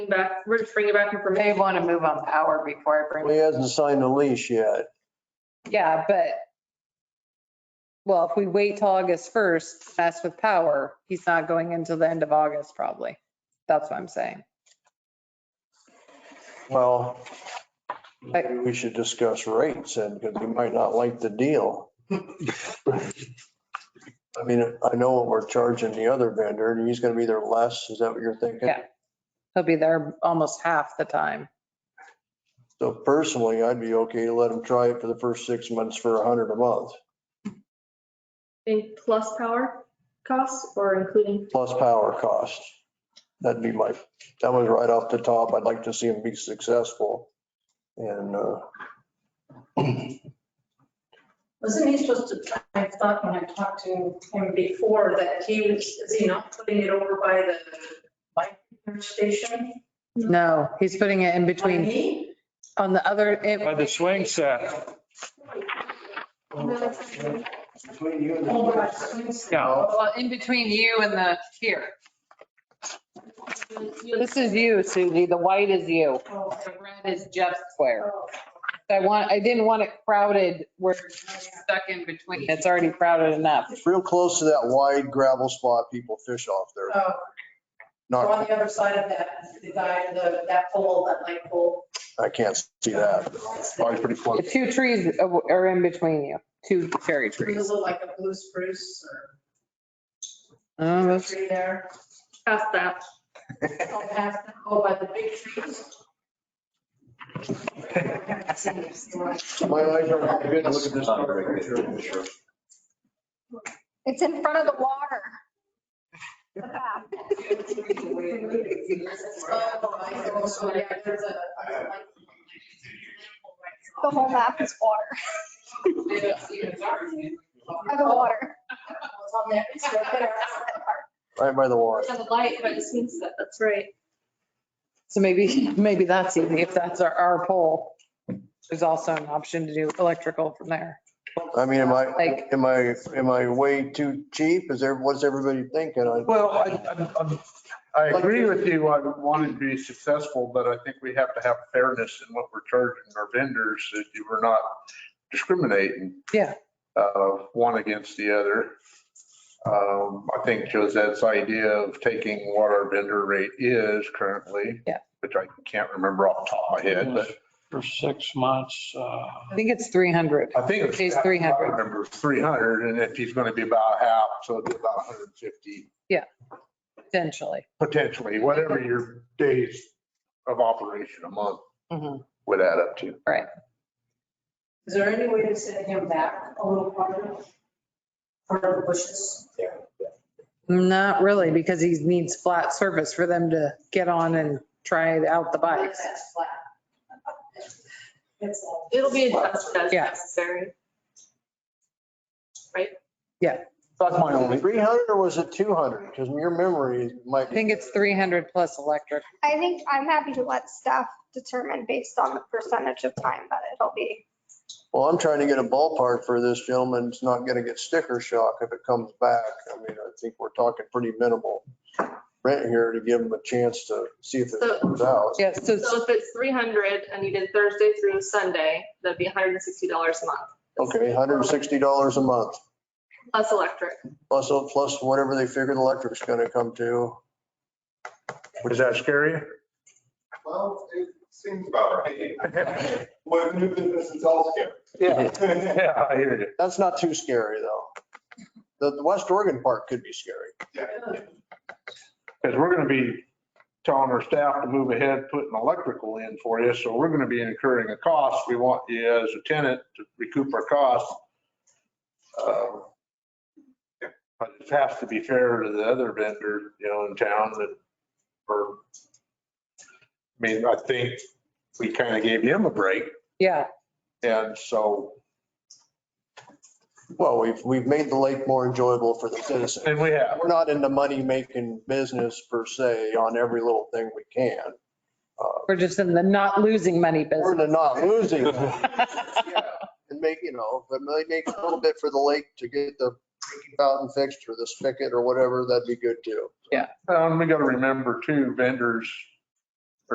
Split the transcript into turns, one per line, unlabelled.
back, we're just bringing back
They
information.
want to move on power before I
Well,
bring,
He hasn't signed the lease yet.
yeah, but, well, if we wait till August 1st, mess with power, he's not going until the end of August probably. That's what I'm saying.
Well,
Right.
maybe we should discuss rates and because he might not like the deal. I mean, I know what we're charging the other vendor and he's going to be there less. Is that what you're thinking?
Yeah. He'll be there almost half the time.
So personally, I'd be okay to let him try it for the first six months for a hundred a month,
In plus power costs or including,
plus power costs. That'd be my, that was right off the top. I'd like to see him be successful. And, uh,
Wasn't he supposed to, I thought when I talked to him before that he was, is he not putting it over by the bike station?
No, he's putting it in between
Me?
on the other,
By
it-
the swing set.
Between you and
Over by
the.
the swing set.
Yeah.
well, in between you and the here. This is you, Susie. The white is you.
Oh,
The red is Jeff Square.
oh.
I want, I didn't want it crowded where it's stuck in between. It's already crowded enough.
It's real close to that wide gravel spot people fish off there.
Oh, On
Not,
the other side of that, the guy, the, that pole, that light pole.
I can't see that. Probably pretty close.
The two trees uh, are in between you, two cherry
It
trees.
was like a blue spruce or
Oh, that's-
tree there.
past that.
Oh, past the- Oh, by the big trees.
My eyes are not good. Look at this picture.
It's in front of the water. The back.
Oh, I see. So, yeah, there's a-
The whole map is water, by the water.
Right by the water.
the light, but it seems that, that's right.
So maybe, maybe that's easy. If that's our, our pole, there's also an option to do electrical from there.
I mean, am I,
Like-
am I, am I way too cheap? Is there, what's everybody thinking? I-
Well, I- I'm- I'm- I agree with you. I want to be successful, but I think we have to have fairness in what we're charging our vendors, that you were not discriminating.
Yeah.
uh, One against the other. Um, I think Josette's idea of taking what our vendor rate is currently.
Yeah.
Which I can't remember off the top of my head, but
For six months, uh,
I think it's 300.
I think.
Pays
I
300.
Remember, 300, and if he's going to be about half, so it'd be about 150.
potentially.
potentially, whatever your days of operation a month
Mhm.
would add up to.
Is there any way to send him back a little farther? For bushes?
Not really, because he needs flat surface for them to get on and try out the bikes.
That's flat. It's all-
It'll be adjusted as
Yeah.
necessary.
That's my only.
300 or was it 200? Because your memory might.
I think it's 300 plus electric.
I think I'm happy to let staff determine based on the percentage of time that it'll be.
Well, I'm trying to get a ballpark for this gentleman. It's not going to get sticker shock if it comes back. I mean, I think we're talking pretty minimal rent here to give him a chance to see if
So-
it works out.
Yeah, so it's-
So if it's 300 and you did Thursday through Sunday, that'd be $160 a month.
Okay, $160 a month.
Plus electric.
Plus, plus whatever they figure the electric's gonna come to.
Is that scary?
Well, it seems about right. With new business, it's all scary. Yeah.
Yeah, I hear you.
That's not too scary, though. The, the West Oregon part could be scary.
Because we're going to be telling our staff to move ahead, putting electrical in for you. So we're going to be incurring a cost. We want you as a tenant to recoup our costs. Uh, But it has to be fair to the other vendor, you know, in town that, or, I mean, I think we kind of gave him a break.
yeah,
And so,
Well, we've, we've made the lake more enjoyable for the citizens.
and we have,
We're not into money-making business per se on every little thing we can.
we're just in the not losing money
We're
business.
into not losing. And make, you know, but they make a little bit for the lake to get the fountain fixed or the spigot or whatever, that'd be good too.
um, we got to remember too, vendors